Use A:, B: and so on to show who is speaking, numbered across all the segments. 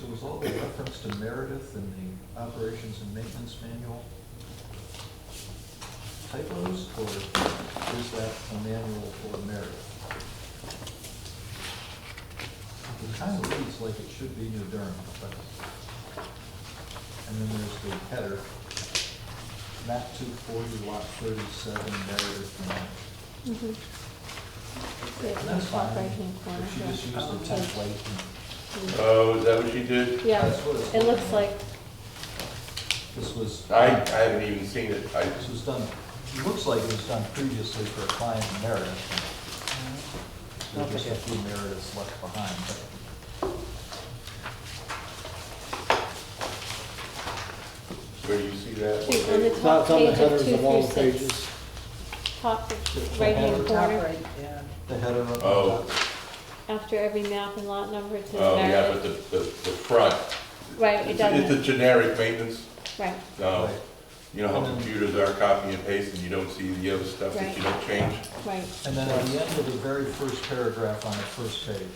A: there was all the reference to Meredith in the operations and maintenance manual. Typos, or is that a manual for Meredith? It kind of reads like it should be New Durham, but, and then there's the header, map two forty, lot thirty-seven, Meredith, Mass.
B: Mhm. Mm-hmm.
A: And that's fine,
B: Right-hand corner,
A: if she
B: yeah.
A: just used the
B: Okay.
A: template and.
C: Oh, is that what you did?
B: Yeah,
A: That's what it's
B: it looks like,
A: This was,
C: I, I haven't even seen it. I
A: this
C: just,
A: was done, it looks like it was done previously for a client in Meredith. There's just a few Merediths left behind, but
C: where do you see that?
B: It's on the
C: Okay.
B: top.
D: It's not on the
B: Page of
D: headers
B: two
D: of all the
B: through six.
D: pages.
B: top
A: It's
B: of
A: the
B: right-hand
A: header.
E: Top
B: corner,
E: right, yeah.
A: the header up on
C: Oh.
A: top.
B: after every map and lot number, it says
C: Oh, yeah, but
B: Meredith.
C: the, the, the front.
B: Right, it
C: It's a- it's a
B: doesn't,
C: generic maintenance.
B: right,
C: No,
A: Right.
C: you know how computers are copy and paste and you don't see the other stuff that you don't change?
B: right.
A: And then at the end of the very first paragraph on the first page,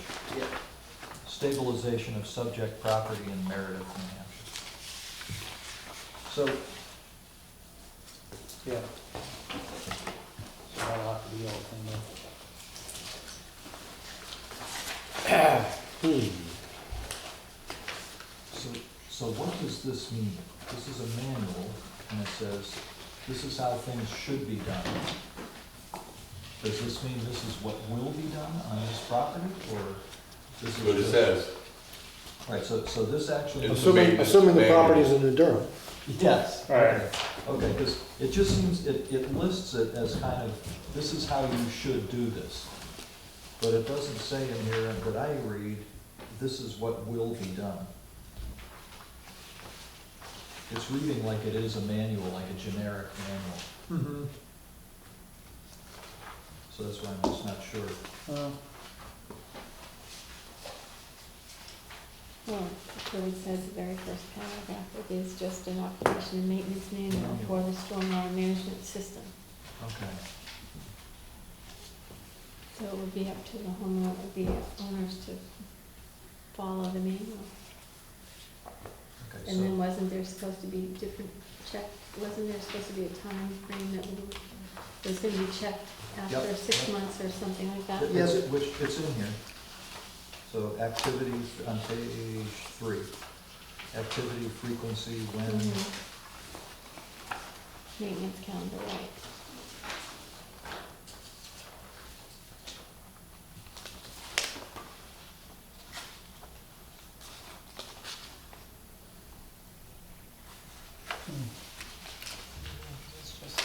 A: stabilization of subject property in Meredith, New Hampshire. So
D: Yeah. So that'll have to be all cleaned up. Hmm.
A: So, so what does this mean? This is a manual, and it says, this is how things should be done. Does this mean this is what will be done on this property, or this
C: That's
A: is?
C: what it
A: just-
C: says.
A: Right, so, so this actually.
C: It's a
D: Assuming,
C: maintenance
D: assuming the
C: manual.
D: property's in New Durham.
A: Yes.
D: Right.
A: Okay, because it just seems, it, it lists it as kind of, this is how you should do this. But it doesn't say in here, that I read, this is what will be done. It's reading like it is a manual, like a generic manual,
D: Mm-hmm.
A: so that's why I'm just not sure.
B: Well, so it says the very first paragraph, it is just an operation and maintenance manual for the stormwater management system.
A: Okay.
B: So it would be up to the homeowner, it would be owners to follow the manual.
A: Okay,
B: And then
A: so,
B: wasn't there supposed to be different check, wasn't there supposed to be a time frame that would- was gonna be checked after
A: Yep.
B: six months or something like that?
A: it's, which, it's in here. So activities on page three, activity, frequency, when,
B: Mhm. Maintenance calendar, right.
E: It's just-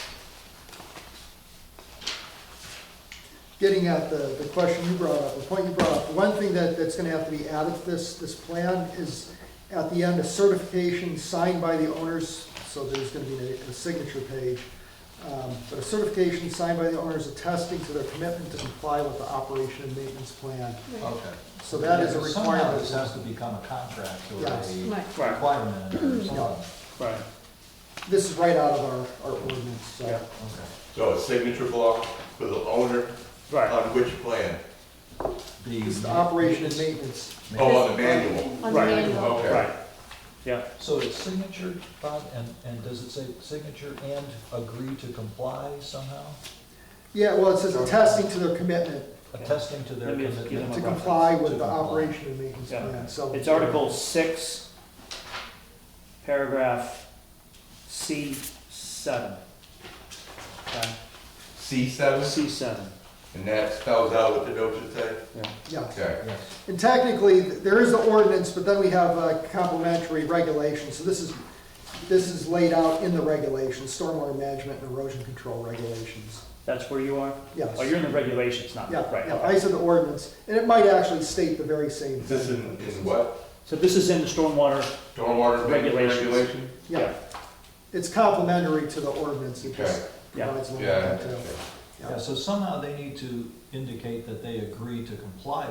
F: getting at the, the question you brought up, the point you brought up, one thing that, that's gonna have to be added to this, this plan is at the end, a certification signed by the owners, so there's gonna be a, a signature page. Um, But a certification signed by the owners attesting to their commitment to comply with the operation and maintenance plan.
B: Right.
A: okay.
F: So that is a
A: Yeah, Somehow
F: requirement.
A: this has to become a contract or
F: Yes.
A: a
B: Right.
D: Right.
A: requirement or something.
F: Yeah.
A: Okay.
D: Right.
F: This is right out of our, our ordinance, so.
D: Yeah.
C: So a signature block for the owner
D: Right.
C: on which plan?
A: The-
F: It's the operation and maintenance.
C: Oh, on the manual.
B: On the
D: Right.
B: manual,
C: Okay.
D: Right. Yeah.
A: So it's signature, Bob, and, and does it say signature and agree to comply somehow?
F: Yeah, well, it says attesting to their commitment
A: Attesting to their
D: Let me just give
A: commitment.
F: to
D: them a
F: comply
A: To
F: with the
A: comply.
F: operation and maintenance
D: Yeah.
F: plan, so.
D: It's Article six, paragraph C seven. Okay,
C: C seven,
D: C seven,
C: and that spells out what the note should say?
D: yeah.
F: Yeah.
C: Okay.
A: Yes,
F: And technically, th- there is the ordinance, but then we have uh, complementary regulations, so this is, this is laid out in the regulations, stormwater management and erosion control regulations.
D: That's where you are?
F: Yes.
D: Oh, you're in the regulations, not,
F: Yeah,
D: right,
F: yeah,
D: okay.
F: I said the ordinance, and it might actually state the very same
C: Is this in,
F: thing.
C: in what?
D: So this is in the stormwater,
C: Stormwater management
D: Regulations.
C: regulation?
D: yeah,
F: Yeah, it's complementary to the ordinance, it just
D: Yeah.
F: provides a little
C: Yeah.
F: bit too.
A: yeah, so somehow they need to indicate that they agree to comply